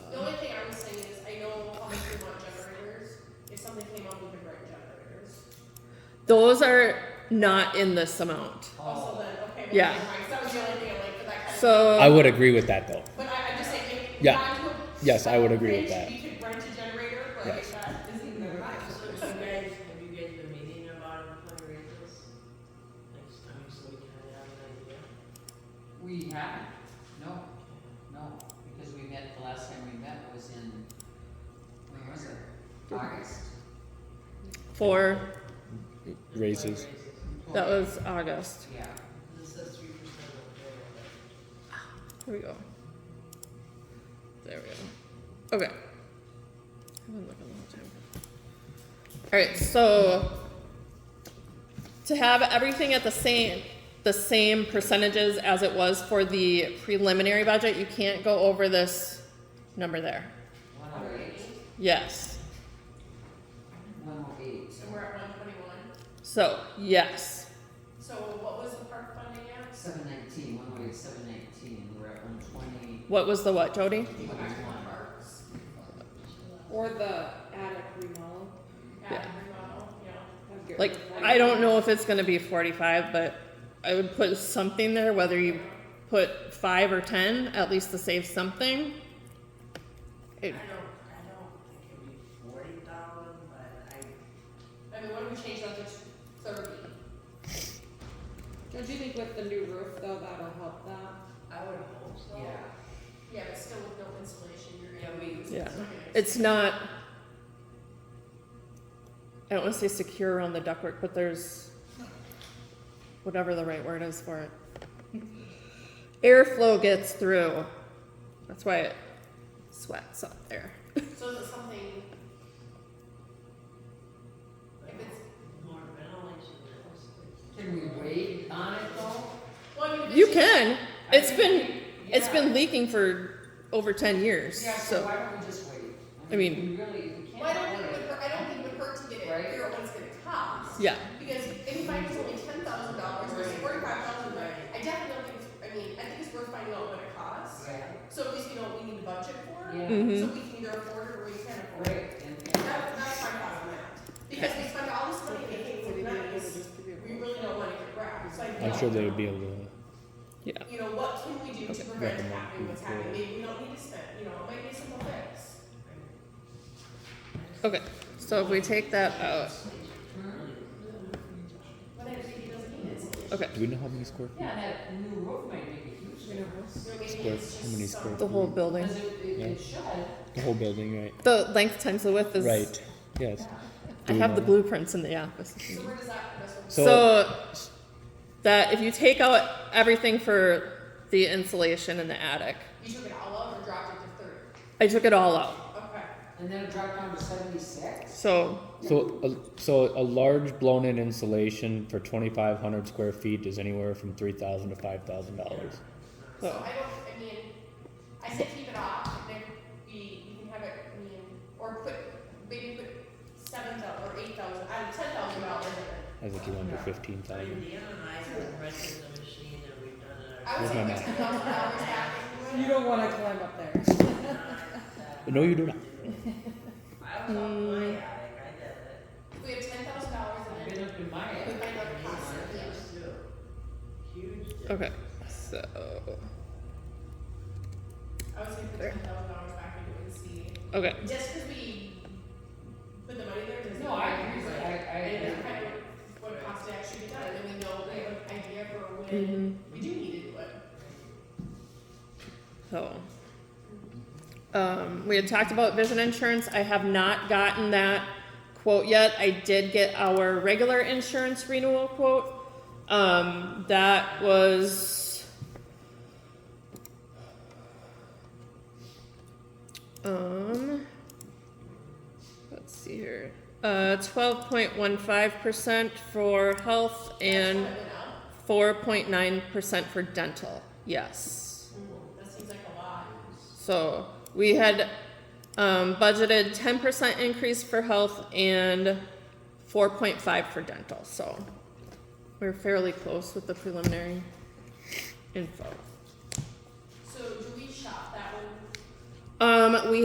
Those are not in this amount. Oh. Also then, okay, well, Yeah. never mind, 'cause that was the only thing I'm like, 'cause I kind of. So I would agree with that though. But I, I'm just saying, if. if Yeah. not to a- Yes, I would agree with rent, that. We could rent a generator, but Yes. if that isn't even So right. have you guys, have you guys been meeting about fundraisers? Like, I mean, so we can have an idea. We haven't, no, no, because we met, the last time we met was in, when was it? August. for Raises. that was August. Yeah, This says three percent of the Here we go. There we go. Okay. I've been looking the whole time. All right, so to have everything at the same the same percentages as it was for the preliminary budget, you can't go over this number there. one oh eight, Yes. one oh eight. So we're at one twenty-one, So, yes. so what was the park funding at? Seven nineteen, one oh eight, seven nineteen, we're at one twenty. What was the what, Jody? Parks. Or the attic remodel. Yeah, remodel, yeah. I'd get Like, rid of that. I don't know if it's gonna be forty-five, but I would put something there, whether you put five or ten, at least to save something. year. It- I don't, I don't think it'd be forty thousand, but I, I mean, what if we change that to thirty? Don't you think with the new roof though, that'll help that? I would hope so. Yeah, Yeah, but still with no insulation, you're Yeah, gonna we- lose. Yeah. Okay. It's not. I don't wanna say secure around the ductwork, but there's whatever the right word is for it. Airflow gets through. That's why it sweats up there. So is it something, If it's more ventilation, it's. can we wait on it though? well, I mean. if You it's- can. I It's mean, been it's yeah. been leaking for over ten years. Yeah, so So why don't we just wait? I mean- We really, we can't. Well, I don't think it would, hurt- I don't think it would hurt to get it, Right. figure out what it's gonna cost. yeah, Because if I was only ten thousand dollars versus forty-five thousand, I definitely don't think, it's- I mean, I think it's worth finding out what it costs. Yeah, So at least we know what we need to budget for, yeah, Mhm. Mm-hmm. so we can either afford it or we can't afford it. right, and, That, that's my thought on that, because we spend all this money making Would it be food able to nice, just give we you- really don't wanna get wrapped, so I. I'm sure they would be able to. yeah. You know, what can we do to Okay. prevent it Recommend happening, what's people. happening, maybe we don't need to spend, you know, it might be a simple fix. Okay. So if we take that out, But I think it doesn't need it. okay. Do we know how many square feet? yeah, that new roof might make a huge difference. So maybe Square, it's how many just square some, The whole building. Cause it, it, it should, The whole building, right? The length times the width is Right. Yes. I Do we have the know? blueprints in the office. so where does that, that's what. So, that if you take out everything for the insulation in the attic, You took it all out or dropped it to thirty? I took it all out. Okay. and then it dropped down to seventy-six? So So, a, so a large blown-in insulation for 2,500 square feet is anywhere from 3,000 to 5,000 dollars. So I Oh. don't, I mean, I said keep it off, and then we, you can have it, I mean, or put, maybe put seven thousand or eight thousand, out of ten thousand dollars in I think you want to do 15,000. Indiana and I have rented the machine and we've done it. it I would Where's my say put ten map? thousand dollars back You into it. don't wanna climb up there. ourselves. No, you do not. I was on my attic, I did it. If We have ten thousand dollars in I've it, been up in my We attic. might not and pass it's it, yeah. just Huge difference. okay. So I would say put There. ten thousand dollars back into it and see, okay. just because we put the money there, doesn't. No, I mean agree, it's but like- I, I And agree. it's kind of what it costs to actually be done, and then we know, we have an idea for when hmm we do need to do it. So, um, we had talked about vision insurance. I have not gotten that quote yet. I did get our regular insurance renewal quote. Um, that was. Um, let's see here. Uh, 12.15% for health and That's what I went out. 4.9% for dental. Yes. That seems like a lot. So we had um, budgeted ten percent increase for health and four point five for dental. So we we're fairly close with the preliminary info. So do we shop that one Um, we